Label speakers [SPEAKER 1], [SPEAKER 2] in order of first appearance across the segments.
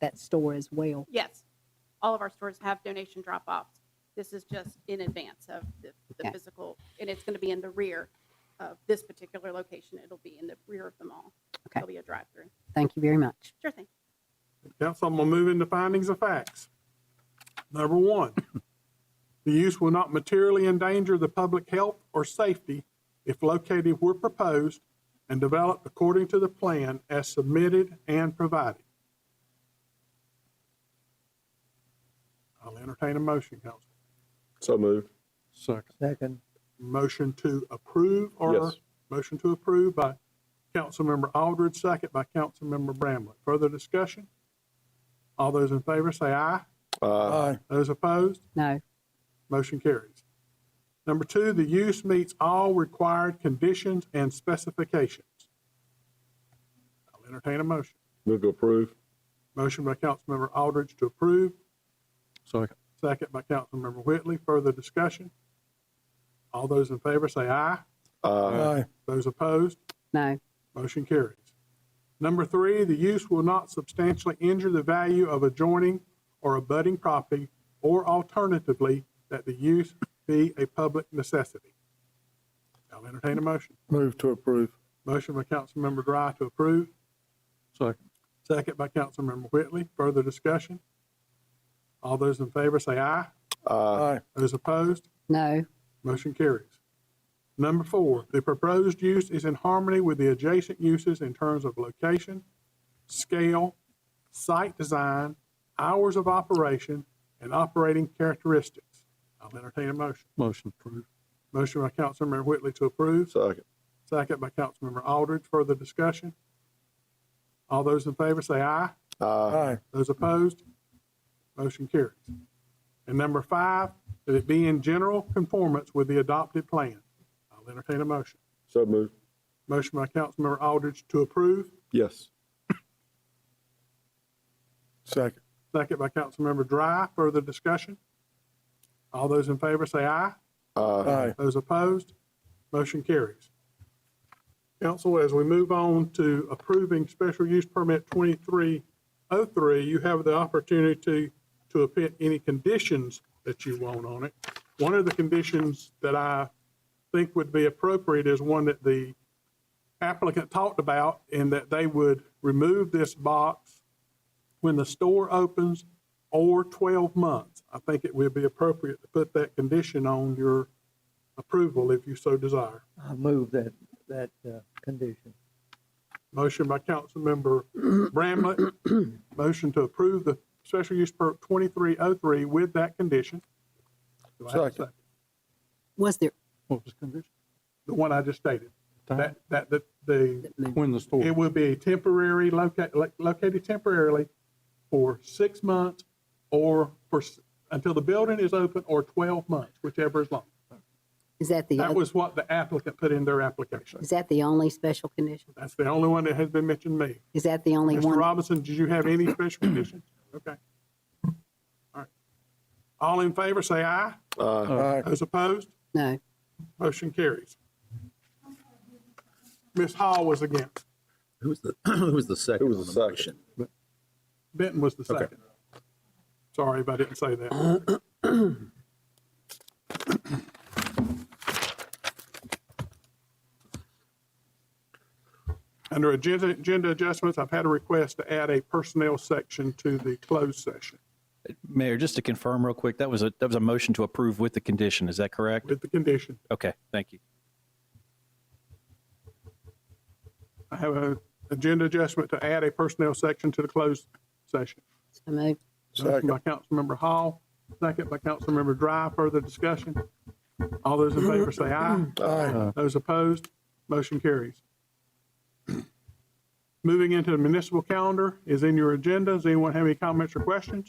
[SPEAKER 1] that store as well?
[SPEAKER 2] Yes, all of our stores have donation drop-offs. This is just in advance of the, the
[SPEAKER 1] Okay.
[SPEAKER 2] physical, and it's going to be in the rear of this particular location. It'll be in the rear of the mall.
[SPEAKER 1] Okay.
[SPEAKER 2] It'll be a drive-through.
[SPEAKER 1] Thank you very much.
[SPEAKER 2] Sure thing.
[SPEAKER 3] Council, I'm gonna move into findings of facts. Number one, the use will not materially endanger the public health or safety if located where proposed and developed according to the plan as submitted and provided. I'll entertain a motion, Council.
[SPEAKER 4] So moved.
[SPEAKER 3] Second.
[SPEAKER 5] Second.
[SPEAKER 3] Motion to approve or,
[SPEAKER 4] Yes.
[SPEAKER 3] motion to approve by Councilmember Aldridge, second by Councilmember Bramlett. Further discussion? All those in favor say aye.
[SPEAKER 4] Uh,
[SPEAKER 5] Aye.
[SPEAKER 3] Those opposed,
[SPEAKER 1] No,
[SPEAKER 3] motion carries. Number two, the use meets all required conditions and specifications. I'll entertain a motion.
[SPEAKER 4] move to approve.
[SPEAKER 3] Motion by Councilmember Aldridge to approve,
[SPEAKER 4] Second.
[SPEAKER 3] second by Councilmember Whitley. Further discussion? All those in favor say aye.
[SPEAKER 4] Uh,
[SPEAKER 5] Aye.
[SPEAKER 3] Those opposed,
[SPEAKER 1] no,
[SPEAKER 3] Motion carries. Number three, the use will not substantially injure the value of adjoining or abutting property, or alternatively, that the use be a public necessity. I'll entertain a motion.
[SPEAKER 5] Move to approve.
[SPEAKER 3] Motion by Councilmember Dry to approve.
[SPEAKER 5] Second.
[SPEAKER 3] Second by Councilmember Whitley. Further discussion? All those in favor say aye.
[SPEAKER 4] uh,
[SPEAKER 5] Aye.
[SPEAKER 3] Those opposed,
[SPEAKER 1] no,
[SPEAKER 3] Motion carries. Number four, the proposed use is in harmony with the adjacent uses in terms of location, scale, site design, hours of operation, and operating characteristics. I'll entertain a motion.
[SPEAKER 5] Motion approved.
[SPEAKER 3] Motion by Councilmember Whitley to approve,
[SPEAKER 4] second.
[SPEAKER 3] second by Councilmember Aldridge. Further discussion? All those in favor say aye.
[SPEAKER 4] Uh,
[SPEAKER 5] Aye.
[SPEAKER 3] Those opposed? Motion carries. And number five, that it be in general conformance with the adopted plan. I'll entertain a motion.
[SPEAKER 4] so moved.
[SPEAKER 3] Motion by Councilmember Aldridge to approve,
[SPEAKER 4] Yes.
[SPEAKER 5] Second.
[SPEAKER 3] second by Councilmember Dry. Further discussion? All those in favor say aye.
[SPEAKER 4] Uh,
[SPEAKER 5] Aye.
[SPEAKER 3] Those opposed? Motion carries. Council, as we move on to approving special use permit 2303, you have the opportunity to append any conditions that you want on it. One of the conditions that I think would be appropriate is one that the applicant talked about in that they would remove this box when the store opens or 12 months. I think it would be appropriate to put that condition on your approval if you so desire.
[SPEAKER 5] I move that, that uh, condition.
[SPEAKER 3] Motion by Councilmember Bramlett, motion to approve the special use permit 2303 with that condition. Do I have a
[SPEAKER 5] Second.
[SPEAKER 1] was there,
[SPEAKER 5] What was condition?
[SPEAKER 3] The one I just stated,
[SPEAKER 5] Uh-huh.
[SPEAKER 3] that, that, that the,
[SPEAKER 5] When the store.
[SPEAKER 3] it will be a temporary, loca- lo- located temporarily for six months or for, s- until the building is open or 12 months, whichever is long.
[SPEAKER 1] is that the,
[SPEAKER 3] That
[SPEAKER 1] oth-
[SPEAKER 3] was what the applicant put in their application.
[SPEAKER 1] is that the only special condition?
[SPEAKER 3] That's the only one that has been mentioned to me.
[SPEAKER 1] Is that the only
[SPEAKER 3] Mr.
[SPEAKER 1] one?
[SPEAKER 3] Robinson, did you have any special conditions? Okay. All right. All in favor, say aye.
[SPEAKER 4] uh,
[SPEAKER 5] Aye.
[SPEAKER 3] Those opposed,
[SPEAKER 1] No,
[SPEAKER 3] motion carries. Ms. Hall was against.
[SPEAKER 6] Who was the, who was the second?
[SPEAKER 4] Who was
[SPEAKER 6] on
[SPEAKER 4] the
[SPEAKER 6] the
[SPEAKER 4] second?
[SPEAKER 6] motion?
[SPEAKER 3] Benton was the
[SPEAKER 6] Okay.
[SPEAKER 3] second. Sorry if I didn't say that. Under agenda, agenda adjustments, I've had a request to add a personnel section to the closed session
[SPEAKER 7] Mayor, just to confirm real quick, that was a, that was a motion to approve with the condition, is that correct?
[SPEAKER 3] with the condition
[SPEAKER 7] Okay, thank you.
[SPEAKER 3] I have an agenda adjustment to add a personnel section to the closed session.
[SPEAKER 1] so moved.
[SPEAKER 3] Motion
[SPEAKER 5] Second.
[SPEAKER 3] by Councilmember Hall, second by Councilmember Dry. Further discussion? All those in favor say aye.
[SPEAKER 5] Aye.
[SPEAKER 3] Those opposed, motion carries. Moving into the municipal calendar is in your agenda. Does anyone have any comments or questions?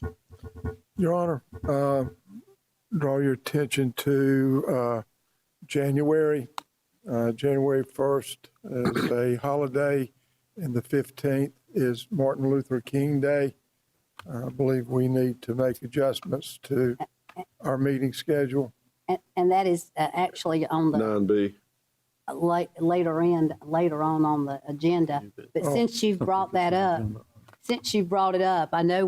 [SPEAKER 5] Your Honor, uh, draw your attention to uh, January. Uh, January 1st is a holiday, and the 15th is Martin Luther King Day. I believe we need to make adjustments to our meeting schedule.
[SPEAKER 1] And, and that is uh, actually on the
[SPEAKER 4] nine B.
[SPEAKER 1] late, later end, later on on the agenda. But
[SPEAKER 5] Oh.
[SPEAKER 1] since you've brought that up, since you brought it up, I know